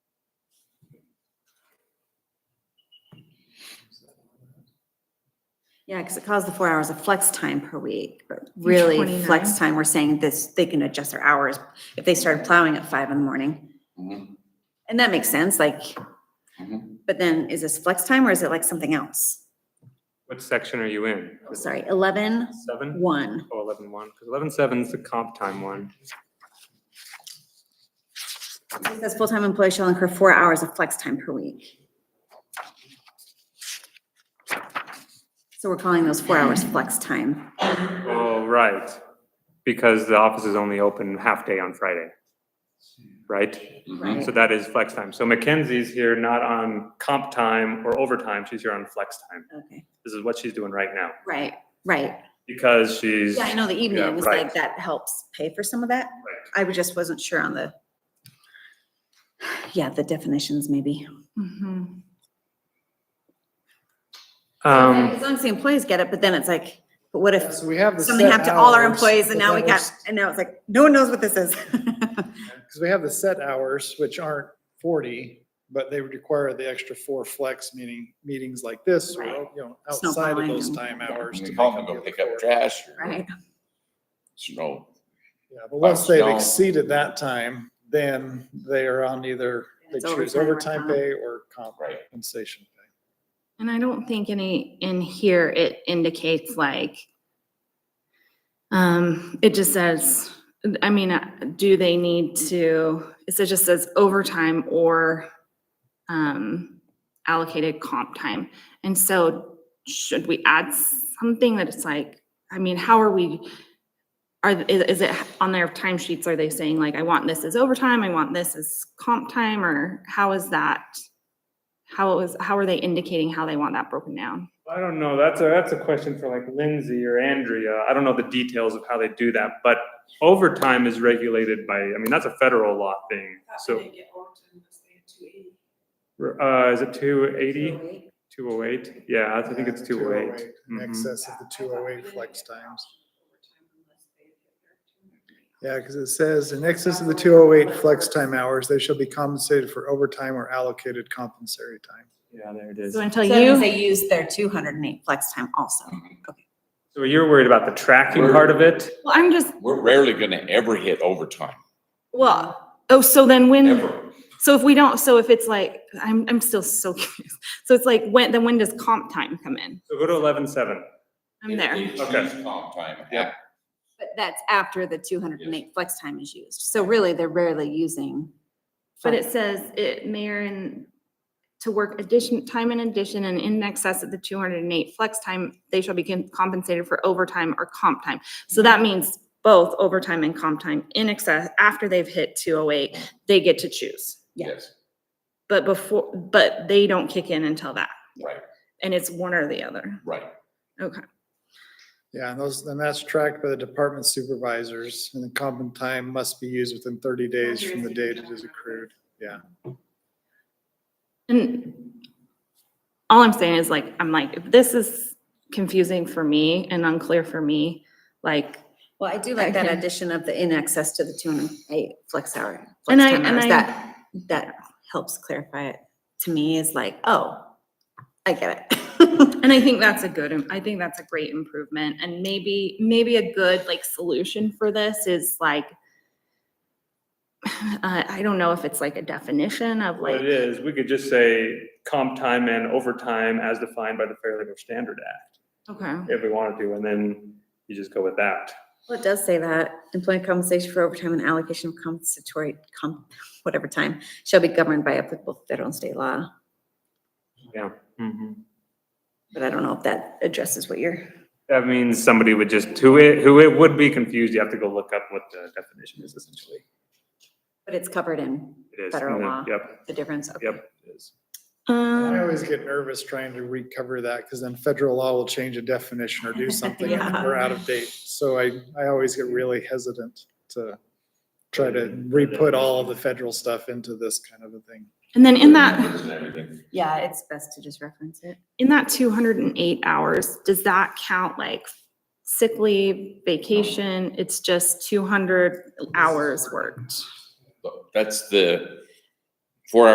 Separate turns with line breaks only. Yeah, because it calls the four hours of flex time per week, but really flex
29.
time, we're saying this, they can adjust their hours if they started plowing at five in the morning.
Mhm.
And that makes sense, like,
Mhm.
but then is this flex time or is it like something else?
What section are you in?
Oh, Sorry, eleven,
Seven
one.
or eleven one? Because eleven seven's the comp time one.
It says full-time employee shall incur four hours of flex time per week. So we're calling those four hours flex time.
Oh, right, because the office is only open half day on Friday, right?
mm-hmm.
Right.
So that is flex time. So Mackenzie's here not on comp time or overtime, she's here on flex time.
Okay,
This is what she's doing right now,
right, right.
because she's,
Yeah, I know the
Yeah,
evening is
right.
like, that helps pay for some of that. I was- just wasn't sure on the, yeah, the definitions maybe. Mm-hmm.
Mhm.
um,
As long as the employees get it, but then it's like, but what if
So we have the.
something
set
happened to all our
hours,
employees and
but
now we
then
got, and now it's like, no one knows what this is.
Because we have the set hours, which aren't forty, but they would require the extra four flex meeting, meetings like this, or,
Right.
you know,
Snowballing
outside of those
and-
time
yeah.
hours.
You
to
call
make
them
up
to go
the
pick up
other four.
trash or
Right,
snow.
Yeah, but once they've
snow.
exceeded that time, then they are on either, they
It's
choose
overtime or
overtime
comp.
pay or comp
Right.
compensation pay.
And I don't think any, in here, it indicates like, um, it just says, I mean, uh, do they need to, it says- just says overtime or, um, allocated comp time. And so should we add something that it's like, I mean, how are we, are, th- is, is it on their timesheets? Are they saying like, I want this as overtime, I want this as comp time, or how is that? How is, how are they indicating how they want that broken down?
I don't know, that's a, that's a question for like Lindsay or Andrea, I don't know the details of how they do that, but overtime is regulated by, I mean, that's a federal law thing, so. Uh, is it two eighty? Two oh eight? Yeah, I think it's two oh eight.
In
Mhm.
excess of the two oh eight flex times. Yeah, because it says in excess of the two oh eight flex time hours, they shall be compensated for overtime or allocated compensatory time.
Yeah, there it is.
So
So
until
So that means
you,
they use their two hundred and eight flex time also.
you're worried about the tracking part of it?
well, I'm just,
We're rarely gonna ever hit overtime,
well, oh, so then when,
ever.
so if we don't, so if it's like, I'm, I'm still so confused. So it's like, when, then when does comp time come in?
So go to eleven seven.
I'm there.
It's
Okay.
used comp time.
Yep.
But that's after the two hundred and eight flex time is used. So really, they're rarely using.
But
flex-
it says it may or in, to work addition, time in addition and in excess of the two hundred and eight flex time, they shall be con- compensated for overtime or comp time. So that means both overtime and comp time in excess, after they've hit two oh eight, they get to choose.
Yeah.
Yes,
But before, but they don't kick in until that.
Right.
And it's one or the other.
right.
Okay.
Yeah, and those, and that's tracked by the department supervisors and the comp time must be used within thirty days from the date it is accrued.
And all I'm saying is like, I'm like, if this is confusing for me and unclear for me, like,
Well, I do like that
Okay.
addition of the in excess to the two hundred and eight flex hour.
and
flex
I,
time
and
hours.
I.
That, that helps clarify it to me is like, oh, I get it.
And I think that's a good, I think that's a great improvement and maybe, maybe a good like solution for this is like, uh, I don't know if it's like a definition of
What it
like,
is, we could just say comp time and overtime as defined by the Fair Labor Standard Act,
okay,
if we wanted to, and then you just go with that.
Well, it does say that employee compensation for overtime and allocation of compensatory comp, whatever time, shall be governed by applicable federal and state law.
Mhm.
But I don't know if that addresses what you're,
That means somebody would just, who it, who it would be confused, you have to go look up what the definition is essentially.
but it's covered in
It is.
Federal law.
Yep,
the difference. Okay.
yep. it is.
I
um,
always get nervous trying to recover that because then federal law will change a definition or do something and
Yeah.
we're out of date. So I, I always get really hesitant to try to re-put all of the federal stuff into this kind of a thing.
and then in that,
And everything.
Yeah, it's best to just reference it.
in that two hundred and eight hours, does that count like sick leave, vacation? It's just two hundred hours worked.
But That's the